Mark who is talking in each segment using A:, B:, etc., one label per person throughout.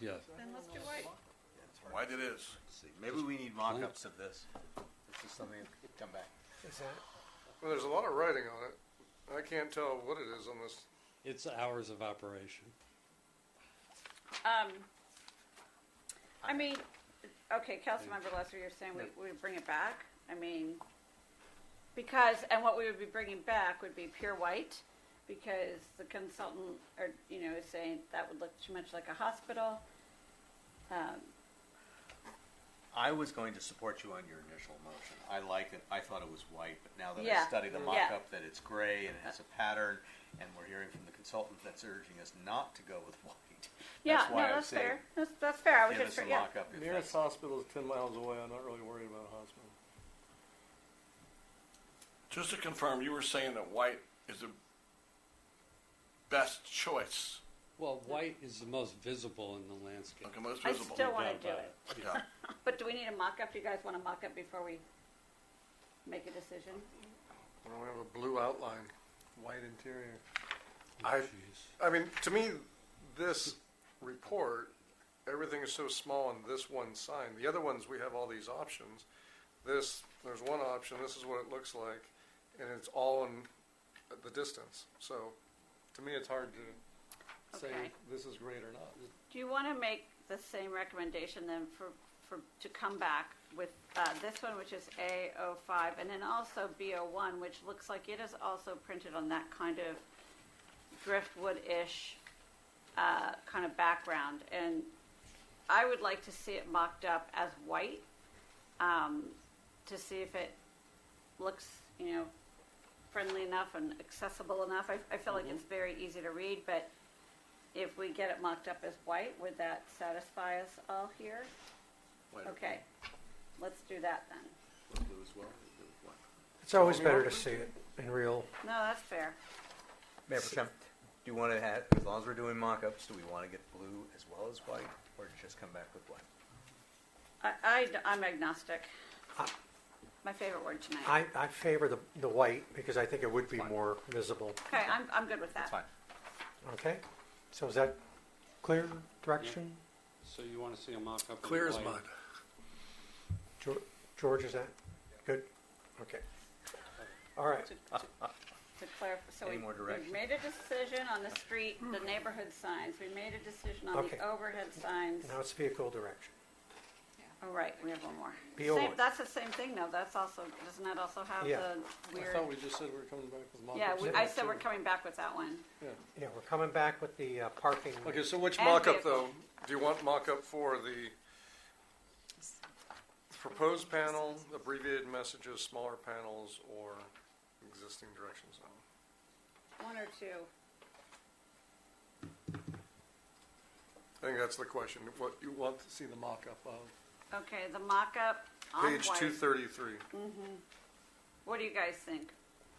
A: Yeah,
B: Then let's do white.
C: White it is.
D: See, maybe we need mock-ups of this. This is something that could come back.
E: Is that,
F: Well, there's a lot of writing on it. I can't tell what it is on this.
A: it's hours of operation.
B: Um, I mean, okay, Councilmember Lesser, you're saying we, we bring it back? I mean, because, and what we would be bringing back would be pure white, because the consultant, or, you know, is saying that would look too much like a hospital. Um,
D: I was going to support you on your initial motion. I liked it, I thought it was white, but now that I
B: Yeah,
D: studied the
B: yeah.
D: mock-up, that it's gray and it has a pattern, and we're hearing from the consultant that's urging us not to go with white.
B: Yeah,
D: That's
B: no,
D: why I was
B: that's
D: saying,
B: fair, that's, that's fair, I was
D: Give us
B: just,
D: a
B: yeah,
D: mock-up if
E: nearest
D: that's,
E: hospital is ten miles away, I'm not really worried about a hospital.
C: Just to confirm, you were saying that white is the best choice,
A: Well, white is the most visible in the landscape.
C: okay, most
B: I
C: visible.
B: still
A: No
B: wanna
A: doubt
B: do
A: about
B: it.
C: Yeah.
B: But do we need a mock-up? Do you guys want a mock-up before we make a decision?
F: I don't have a blue outline.
E: White interior.
F: I,
A: Jeez.
F: I mean, to me, this report, everything is so small on this one sign. The other ones, we have all these options. This, there's one option, this is what it looks like, and it's all in the distance. So, to me, it's hard to say
B: Okay.
F: this is great or not.
B: Do you want to make the same recommendation then for, for, to come back with, uh, this one, which is A O five, and then also B O one, which looks like it is also printed on that kind of driftwood-ish, uh, kind of background, and I would like to see it mocked up as white, um, to see if it looks, you know, friendly enough and accessible enough. I, I feel like it's very easy to read, but if we get it mocked up as white, would that satisfy us all here?
C: White or
B: Okay, let's do that then.
C: blue as well.
E: It's always better to see it in real.
B: No, that's fair.
D: Mayor Pro Tem, do you want to have, as long as we're doing mock-ups, do we want to get blue as well as white, or just come back with white?
B: I, I, am agnostic. My favorite word tonight.
G: I, I favor the, the white because I think it would be more visible.
B: Okay, I'm, I'm good with
D: That's
B: that.
D: fine.
G: Okay? So is that clear direction?
A: So you want to see a mock-up? in
C: Clear as
A: white?
C: mud.
G: Geor- George, is that good? Okay. All right.
B: To clarify, so we,
D: Any more
B: we
D: direction?
B: made a decision on the street, the neighborhood signs. We made a decision on
G: Okay.
B: the overhead signs.
G: Now it's vehicle direction.
B: All right, we have one more.
G: BO
B: Same-
G: one.
B: That's the same thing though. That's also, doesn't that also have
G: Yeah.
B: the
E: I
B: weird?
E: thought we just said we we're coming back with mock-ups.
B: Yeah, we,
E: of
B: I
E: that,
B: said we're
E: too.
B: coming back with that one.
G: Yeah, we're coming back with the uh, parking.
F: Okay, so which
B: And
F: mock-up
B: vehicle.
F: though? Do you want mock-up for the proposed panel, abbreviated messages, smaller panels, or existing directions?
B: One or two.
F: I think that's the question, what you want to see the mock-up of.
B: Okay, the mock-up on
F: Page
B: white.
F: two thirty-three.
B: What do you guys think?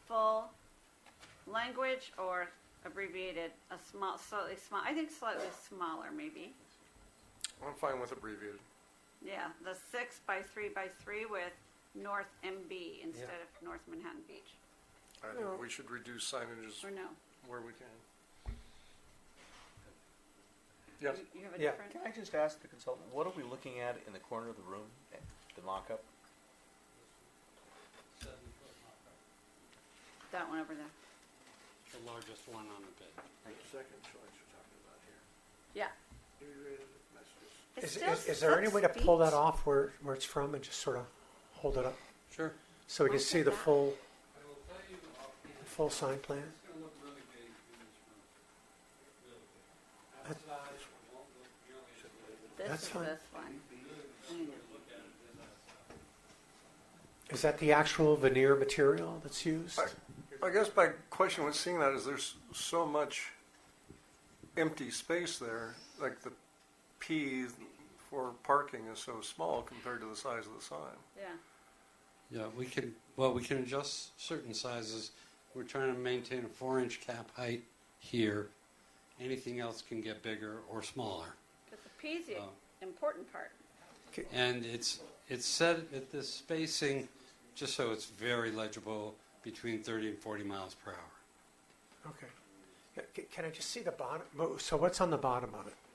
B: Full language or abbreviated? A small, slightly small. I think slightly smaller, maybe.
F: I'm fine with abbreviated.
B: Yeah, the six by three by three with North MB instead of North Manhattan Beach.
F: I think we should reduce signages
B: Or no?
F: where we can. Yes,
B: You- You have a
G: Yeah.
B: different.
D: Can I just ask the consultant, what are we looking at in the corner of the room, at the mock-up?
B: That one over there.
A: The largest one on the bid.
C: Second choice you're talking about here.
B: Yeah. It
G: Is,
B: still
G: is, is there any
B: looks
G: way to pull
B: beach.
G: that off where, where it's from and just sort of hold it up
A: Sure.
G: so we can
B: Look
G: see
B: at
G: the
B: that.
A: I
G: full,
A: will tell you offhand,
G: full sign plan?
A: it's going to look really big in this room. Really big.
G: That's-
A: Outside, it won't look nearly as big.
B: This
G: That's
B: is
G: fine.
B: this one.
G: Is that the actual veneer material that's used?
F: I guess my question with seeing that is there's so much empty space there, like the P for parking is so small compared to the size of the sign.
B: Yeah.
A: Yeah, we can, well, we can adjust certain sizes. We're trying to maintain a four-inch cap height here. Anything else can get bigger or smaller.
B: Because the P's the
A: Oh.
B: important part.
A: And it's, it's set at this spacing, just so it's very legible, between 30 and 40 miles per hour.
G: Okay. C- Can I just see the bottom? mo- So what's on the bottom of it?